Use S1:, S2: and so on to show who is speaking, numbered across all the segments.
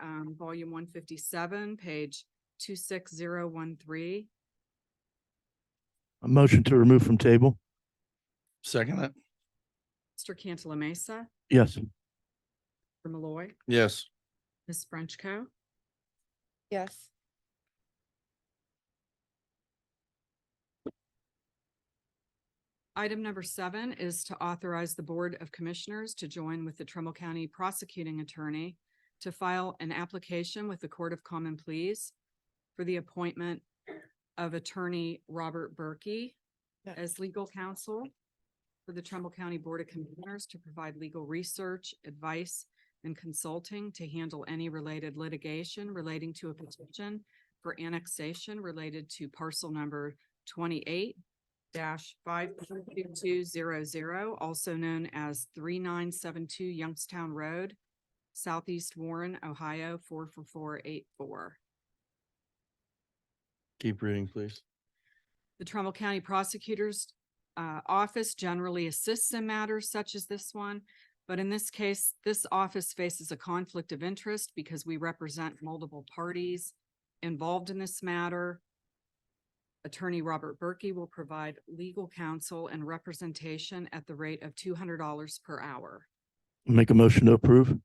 S1: um, volume one fifty-seven, page two six zero one three.
S2: A motion to remove from table?
S3: Second it.
S1: Mr. Cantala Mesa,
S2: Yes.
S1: Mr. Malloy,
S3: Yes.
S1: Ms. Frenchco.
S4: yes,
S1: Item number seven is to authorize the Board of Commissioners to join with the Trumbull County Prosecuting Attorney to file an application with the Court of Common Pleas for the appointment of Attorney Robert Berkey
S4: Yes.
S1: as legal counsel for the Trumbull County Board of Commissioners to provide legal research, advice, and consulting to handle any related litigation relating to a petition for annexation related to parcel number twenty-eight dash five two two zero zero, also known as three nine seven two Youngstown Road, Southeast Warren, Ohio, four four four eight four.
S3: Keep reading, please.
S1: The Trumbull County Prosecutor's uh, Office generally assists in matters such as this one. But in this case, this office faces a conflict of interest because we represent multiple parties involved in this matter. Attorney Robert Berkey will provide legal counsel and representation at the rate of two hundred dollars per hour.
S2: Make a motion to approve?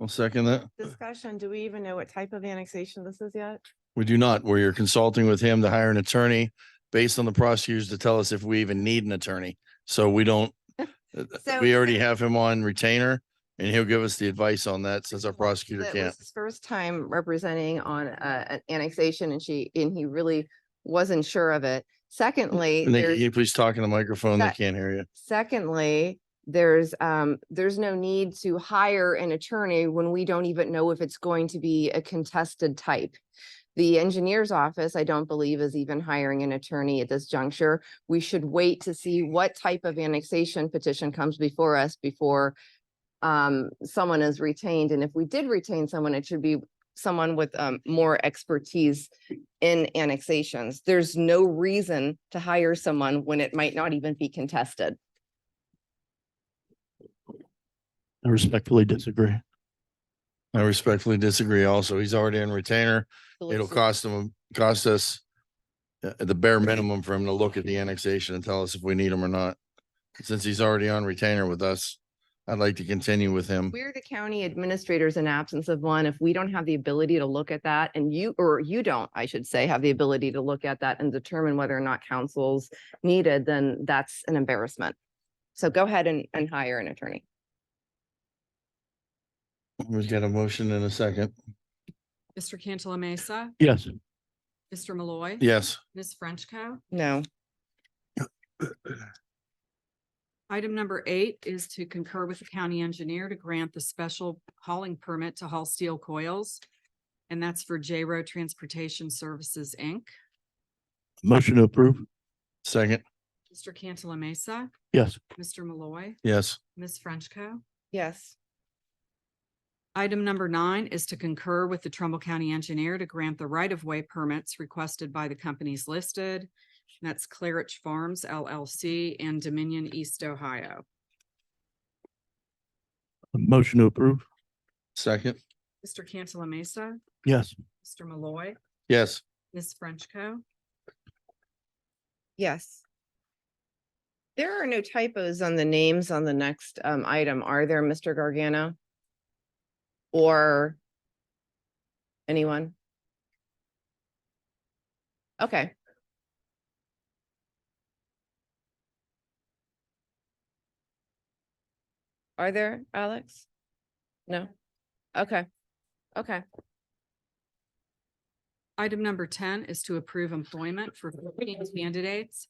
S3: I'll second that.
S4: discussion, do we even know what type of annexation this is yet?
S3: We do not, where you're consulting with him to hire an attorney based on the prosecutors to tell us if we even need an attorney. So we don't.
S4: So-
S3: We already have him on retainer and he'll give us the advice on that since our prosecutor
S4: That
S3: can't.
S4: was his First time representing on uh, an annexation and she, and he really wasn't sure of it. Secondly,
S3: And they,
S4: there's
S3: can you please talk in the microphone? They
S4: That-
S3: can't hear you.
S4: Secondly, there's, um, there's no need to hire an attorney when we don't even know if it's going to be a contested type. The engineer's office, I don't believe is even hiring an attorney at this juncture. We should wait to see what type of annexation petition comes before us before um, someone is retained. And if we did retain someone, it should be someone with, um, more expertise in annexations. There's no reason to hire someone when it might not even be contested.
S2: I respectfully disagree.
S3: I respectfully disagree also. He's already in retainer. It'll cost him, cost us uh, the bare minimum for him to look at the annexation and tell us if we need him or not. Since he's already on retainer with us, I'd like to continue with him.
S4: We're the county administrators in absence of one. If we don't have the ability to look at that and you, or you don't, I should say, have the ability to look at that and determine whether or not counsel's needed, then that's an embarrassment. So go ahead and, and hire an attorney.
S3: We've got a motion and a second.
S1: Mr. Cantala Mesa,
S2: Yes.
S1: Mr. Malloy.
S3: Yes.
S1: Ms. Frenchco.
S4: No,
S1: Item number eight is to concur with the county engineer to grant the special hauling permit to haul steel coils. And that's for J Row Transportation Services, Inc.
S2: Motion to approve?
S3: Second.
S1: Mr. Cantala Mesa,
S2: Yes.
S1: Mr. Malloy,
S3: Yes.
S1: Ms. Frenchco.
S4: yes,
S1: Item number nine is to concur with the Trumbull County Engineer to grant the right-of-way permits requested by the companies listed. And That's Claridge Farms LLC and Dominion East Ohio.
S2: A motion to approve?
S3: Second.
S1: Mr. Cantala Mesa,
S2: Yes.
S1: Mr. Malloy,
S3: Yes.
S1: Ms. Frenchco.
S4: yes. There are no typos on the names on the next um, item, are there, Mr. Gargano? Or anyone? Okay. Are there, Alex? No? Okay, okay.
S1: Item number ten is to approve employment for fifteen candidates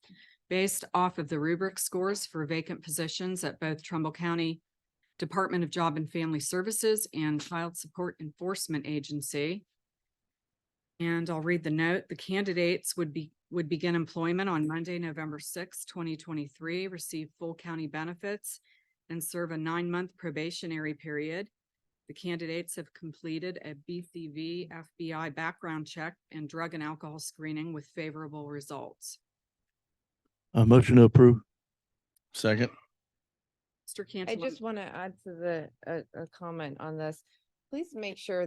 S1: based off of the rubric scores for vacant positions at both Trumbull County Department of Job and Family Services and Child Support Enforcement Agency. And I'll read the note. The candidates would be, would begin employment on Monday, November sixth, twenty twenty-three, receive full county benefits and serve a nine-month probationary period. The candidates have completed a BCV FBI background check and drug and alcohol screening with favorable results.
S2: A motion to approve?
S3: Second.
S1: Mr.
S4: I
S1: Cantala.
S4: just want to add to the, a, a comment on this. Please make sure